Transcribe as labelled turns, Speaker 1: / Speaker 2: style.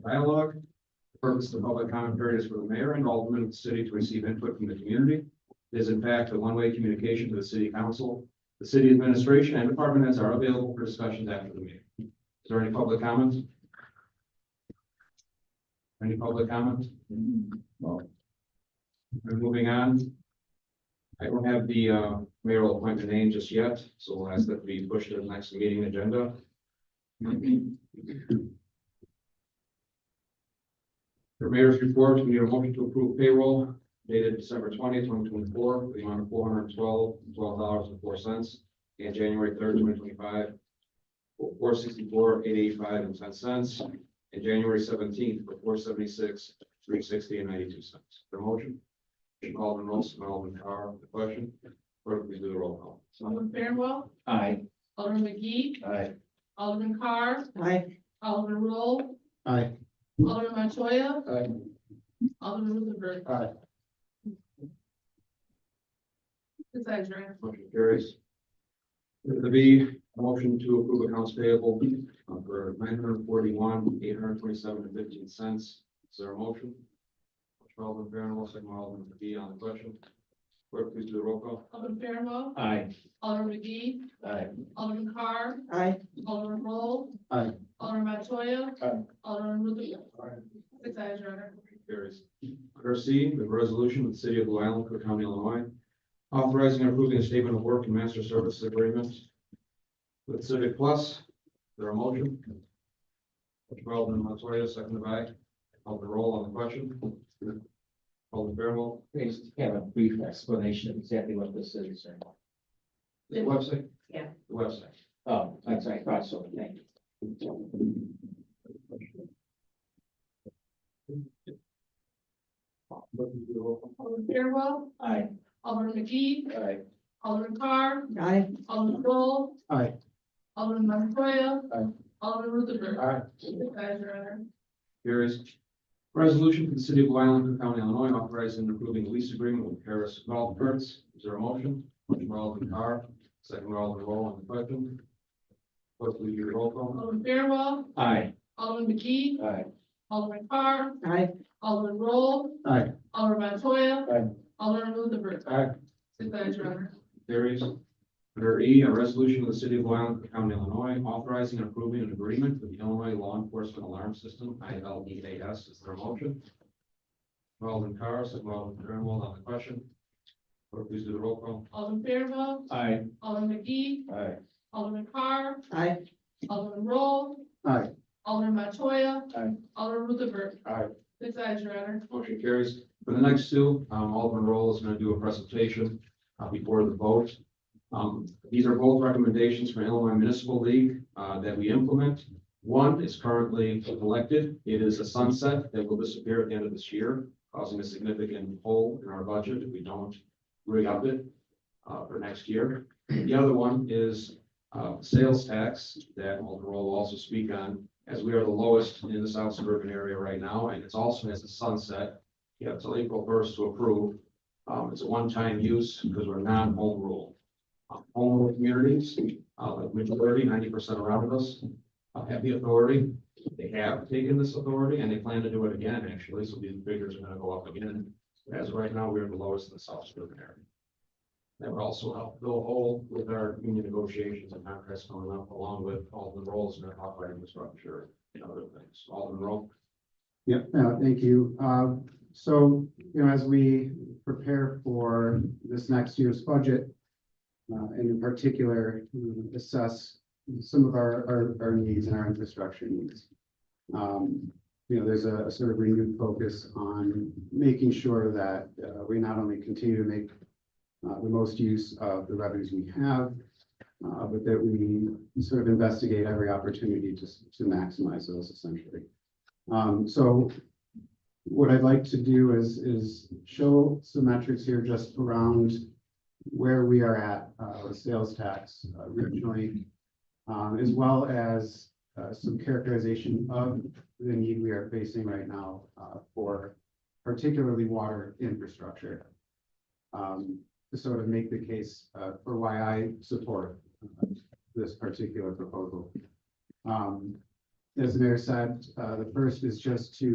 Speaker 1: dialogue. The Purpose of the public comment period is for the mayor and aldermen of the city to receive input from the community. It is in fact a one-way communication to the city council, the city administration, and department heads are available for discussions after the meeting. Is there any public comments? Any public comments? Well. We're moving on. I don't have the uh, mayoral appointment name just yet, so we'll ask that we push to the next meeting agenda. For mayor's report, we need a motion to approve payroll dated December twentieth, twenty twenty-four, the amount of four hundred twelve, twelve dollars and four cents, and January third, twenty twenty-five, four sixty-four, eight eighty-five and ten cents, and January seventeenth for four seventy-six, three sixty and ninety-two cents. The motion? Alderman Wilson, Alderman Carr, the question, clerk, please do the roll call.
Speaker 2: Alderman Fairwell,
Speaker 3: Aye.
Speaker 2: Alderman McGee,
Speaker 3: Aye.
Speaker 2: Alderman Carr,
Speaker 3: Aye.
Speaker 2: Alderman Roll,
Speaker 3: Aye.
Speaker 2: Alderman Montoya,
Speaker 3: Aye.
Speaker 2: Alderman Ruthenberg.
Speaker 3: Aye.
Speaker 2: It's Ezra.
Speaker 1: Motion carries. The B, a motion to approve accounts payable uh, for nine hundred forty-one, eight hundred twenty-seven and fifteen cents. Is there a motion? Alderman Fairwell, second by Alderman McGee on the question. Clerk, please do the roll call.
Speaker 2: Alderman Fairwell,
Speaker 3: Aye.
Speaker 2: Alderman McGee,
Speaker 3: Aye.
Speaker 2: Alderman Carr,
Speaker 3: Aye.
Speaker 2: Alderman Roll.
Speaker 3: Aye.
Speaker 2: Alderman Montoya.
Speaker 3: Aye.
Speaker 2: Alderman Ruthenberg. It's Ezra.
Speaker 1: Carries. Under C, the resolution of the city of Blue Island, Cook County, Illinois, authorizing and approving a statement of work and master services agreement with Civic Plus. Is There a motion? Motion by Alderman Montoya, seconded by Alderman Roll on the question. Alderman Fairwell,
Speaker 3: We just have a brief explanation of exactly what this is.
Speaker 1: the website?
Speaker 2: Yeah.
Speaker 1: The website.
Speaker 3: Oh, that's right, I thought so, thank you.
Speaker 2: Alderman Fairwell,
Speaker 3: Aye.
Speaker 2: Alderman McGee,
Speaker 3: Aye.
Speaker 2: Alderman Carr,
Speaker 3: Aye.
Speaker 2: Alderman Roll,
Speaker 3: Aye.
Speaker 2: Alderman Montoya.
Speaker 3: Aye.
Speaker 2: Alderman Ruthenberg.
Speaker 3: Aye.
Speaker 2: It's Ezra.
Speaker 1: Carries. Resolution for the city of Blue Island, Cook County, Illinois, authorizing and approving a lease agreement with Harris Golf Carts. Is there a motion? Motion by Alderman Carr, second by Alderman Roll on the question. Clerk, will you do the roll call?
Speaker 2: Alderman Fairwell,
Speaker 3: Aye.
Speaker 2: Alderman McGee,
Speaker 3: Aye.
Speaker 2: Alderman Carr,
Speaker 3: Aye.
Speaker 2: Alderman Roll.
Speaker 3: Aye.
Speaker 2: Alderman Montoya.
Speaker 3: Aye.
Speaker 2: Alderman Ruthenberg.
Speaker 3: Aye.
Speaker 2: Six eyes, Your Honor.
Speaker 1: Carries. Under E, a resolution of the city of Blue Island, Cook County, Illinois, authorizing and approving an agreement with the Illinois Law Enforcement Alarm System, I L E A S. Is there a motion? Alderman Carr, second by Alderman Grunwald on the question. Clerk, please do the roll call.
Speaker 2: Alderman Fairwell,
Speaker 3: Aye.
Speaker 2: Alderman McGee,
Speaker 3: Aye.
Speaker 2: Alderman Carr,
Speaker 3: Aye.
Speaker 2: Alderman Roll.
Speaker 3: Aye.
Speaker 2: Alderman Montoya.
Speaker 3: Aye.
Speaker 2: Alderman Ruthenberg.
Speaker 3: Aye.
Speaker 2: Six eyes, Your Honor.
Speaker 1: Motion carries. For the next two, um, Alderman Roll is gonna do a presentation, uh, before the vote. Um, these are both recommendations from Illinois Municipal League, uh, that we implement. One is currently elected. It is a sunset that will disappear at the end of this year, causing a significant hole in our budget if we don't re-up it, uh, for next year. The other one is, uh, sales tax that Alderman Roll will also speak on, as we are the lowest in the South Suburban area right now, and it's also as a sunset. You have till April first to approve. Um, it's a one-time use because we're non-home rule. Um, Home rule communities, uh, like majority, ninety percent around us, uh, have the authority. They have taken this authority and they plan to do it again, actually, so these figures are gonna go up again. As of right now, we're the lowest in the South Suburban area. That would also help fill a hole with our union negotiations and contracts going up, along with all the roles in our operating structure and other things, all the role.
Speaker 4: Yep, no, thank you. Uh, so, you know, as we prepare for this next year's budget, uh, and in particular, you know, assess some of our, our, our needs and our infrastructure needs. Um, you know, there's a sort of renewed focus on making sure that, uh, we not only continue to make uh, the most use of the revenues we have, uh, but that we sort of investigate every opportunity to, s- to maximize those essentially. Um, so what I'd like to do is, is show some metrics here just around where we are at, uh, with sales tax uh, regionally, um, as well as, uh, some characterization of the need we are facing right now, uh, for particularly water infrastructure. Um, to sort of make the case, uh, for why I support uh, this particular proposal. Um, as the mayor said, uh, the first is just to